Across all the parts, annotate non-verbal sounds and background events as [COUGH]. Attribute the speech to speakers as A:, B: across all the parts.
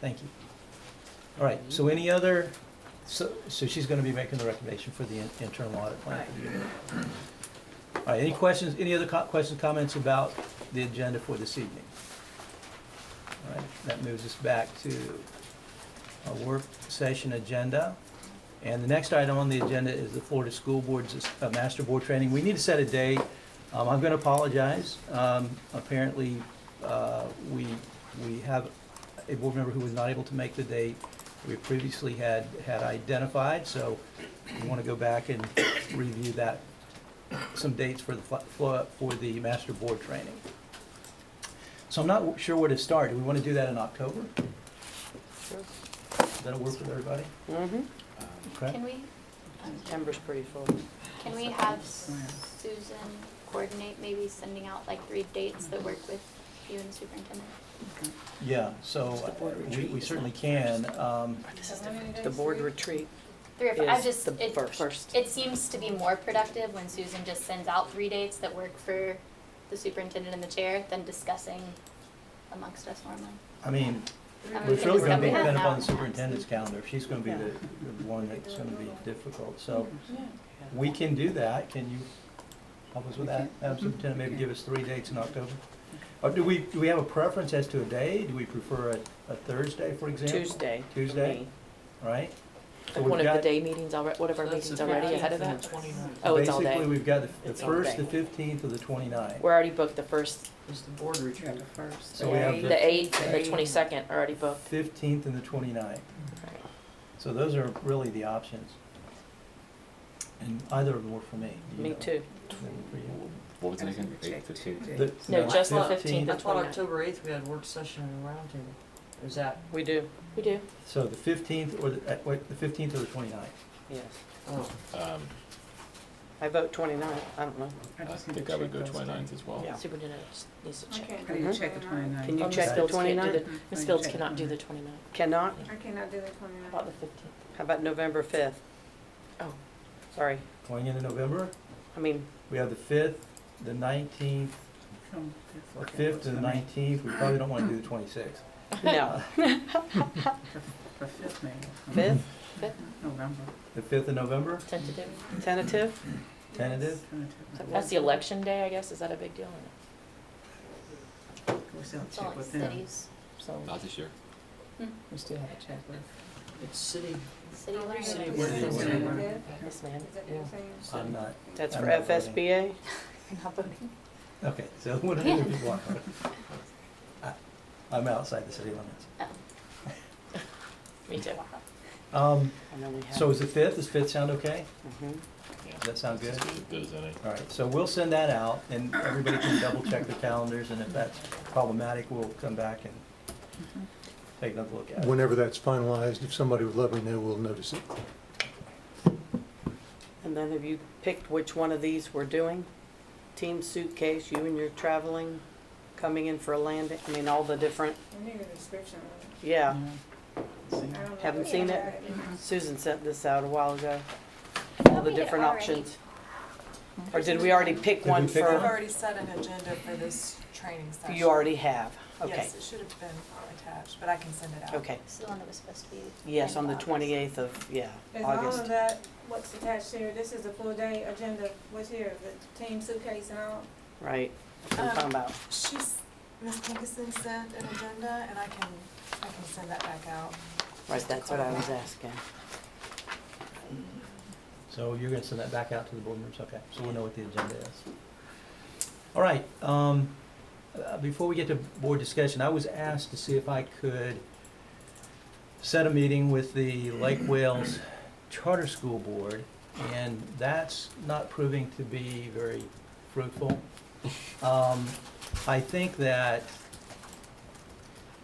A: Thank you. All right, so any other, so, so she's gonna be making the recommendation for the in- internal audit plan. for the year. All right, any questions, any other co- questions, comments about the agenda for this evening? All right, that moves us back to a work session agenda. And the next item on the agenda is the Florida School Board's uh, Master Board Training. We need to set a date. Um, I'm gonna apologize. Um, apparently, uh, we, we have a board member who was not able to make the date we previously had, had identified, so we want to go back and review that, some dates for the, fl- flo- for the master board training. So I'm not sure where to start. Do we want to do that in October? That'll work with everybody?
B: Mm-hmm.
A: Okay?
C: Can we,
B: September's pretty full.
C: can we have Susan coordinate maybe sending out like three dates that work with you and the superintendent?
A: Yeah, so we- we certainly can. um,
B: The board retreat
C: Three or four, I
B: is
C: just,
B: the
C: it,
B: first.
C: it seems to be more productive when Susan just sends out three dates that work for the superintendent and the chair than discussing amongst us normally.
A: I mean,
C: I mean,
A: we're
C: the
A: really
C: stuff
A: going to
C: we
A: be
C: have
A: dependent
C: now.
A: upon the superintendent's calendar. If She's going to be the the one that's going to be difficult, so.
C: Mm-hmm.
A: We can do that, can you help us with that, Madam Superintendent, maybe give us three dates in October? Or do we, do we have a preference as to a day, do we prefer a, a Thursday, for example?
B: Tuesday. for
A: Tuesday?
B: me.
A: Right? So we've
D: One of
A: got-
D: the day meetings already, one of our meetings already ahead of that? Oh, it's all
A: Basically,
D: day.
A: we've got the- the
D: It's all
A: first,
D: day.
A: the fifteenth, or the 29th.
D: We're already booked the first,
E: It's the board retreat first.
A: So we have
D: the
A: the
D: eighth and the twenty-second are already booked.
A: fifteenth and the 29th. So those are really the options. And either of them work for me. Do you
B: Me
A: know?
B: too.
A: Them for you?
F: What was it again? Eight fifteen?
A: The-
D: No, just the
A: 15th.
D: fifteenth
E: I
D: and
E: thought
D: twenty-ninth.
E: October eighth, we had work session and roundtable. Is that,
B: We do,
D: We do.
A: So the fifteenth or the, uh, wait, the fifteenth or the 29th.
B: yes.
E: oh,
F: Um,
B: I vote twenty-nine, I don't know.
F: I think I would go twenty-ninth as well.
B: Yeah.
D: Superintendent needs to check.
G: I need to check the
B: Can
G: twenty-nine.
B: you
D: Oh, Ms.
B: check the
D: Fields can't do
B: 29th?
D: the-
G: I
D: Ms.
G: can
D: Fields
G: check
D: cannot do the
G: the
D: twenty-ninth.
B: Cannot?
G: I cannot do the
D: About the
G: twenty-nine.
D: fifteenth.
B: How about November fifth?
D: Oh.
B: Sorry,
A: Going into November,
B: I mean,
A: we have the fifth, the nineteenth, the fifth and the nineteenth, we probably don't wanna do the twenty-sixth.
D: [LAUGHS]
B: no.
G: The fifth, maybe.
B: Fifth,
G: November.
A: The fifth of November,
D: Tentative.
B: tentative?
A: tentative?
D: That's the election day, I guess. Is that a big deal? or
G: We still have
C: It's
G: to check
C: all like
G: with them.
C: cities,
F: Not this year.
G: We still have to check with.
E: it's city,
C: city
H: Oh,
C: learning.
E: city
A: board
E: board.
A: retreat.
D: no? Yes, ma'am.
E: Yeah.
A: I'm not,
B: That's
A: I'm
B: for
A: not voting.
B: FSBA?
C: Not voting.
A: okay, so [LAUGHS] what are the people on? I- I'm outside the city limits.
C: Oh.
B: [LAUGHS]
D: Me too.
A: Um,
B: And then we have-
A: so is the fifth, does fifth sound okay?
B: Mhm.
F: Yeah.
A: Does that sound good?
F: It's as good as any.
A: All right, so we'll send that out and everybody can double check their calendars and if that's problematic, we'll come back and take another look at it.
I: Whenever that's finalized, if somebody would let me know, we'll notice it.
B: And then have you picked which one of these we're doing? Team suitcase, you and your traveling, coming in for a landing, I mean, all the different,
A: Uh,
H: I need a description of it.
B: yeah.
H: I don't know.
B: Haven't seen it? Susan sent this out a while ago, all
C: Thought
B: the
C: we had
B: different
C: already-
B: options. Or did we already pick
A: Did we
B: one
A: pick
H: I've
A: one?
B: for,
H: already set an agenda for this training session.
B: Uh-huh. you already have? Okay,
H: Yes, it should have been attached, but I can send it out.
B: okay.
C: This is the one that was supposed to be.
B: Yes,
C: in
B: on the
C: August.
B: twenty-eighth of, yeah,
H: Is all
B: August.
H: of that, what's attached here, this is a full day agenda, what's here, the team suitcase and all?
B: Right, that's what I'm talking about.
H: She's, Ms. Nickerson sent an agenda, and I can, I can send that back out.
B: Right, that's what I was asking.
A: So you're gonna send that back out to the board members, okay, so we'll know what the agenda is. All right, um, uh, before we get to board discussion, I was asked to see if I could set a meeting with the Lake Wales Charter School Board, and that's not proving to be very fruitful. Um, I think that,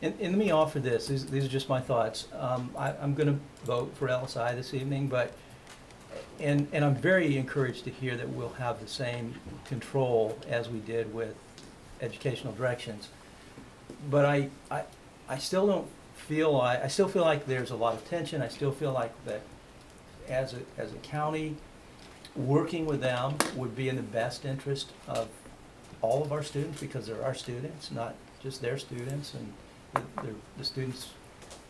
A: and, and let me offer this, these, these are just my thoughts. Um, I, I'm gonna vote for LSI this evening, but and, and I'm very encouraged to hear that we'll have the same control as we did with educational directions. But I, I, I still don't feel, I, I still feel like there's a lot of tension, I still feel like that as a, as a county, working with them would be in the best interest of all of our students, because they're our students, not just their students, and the, the- the students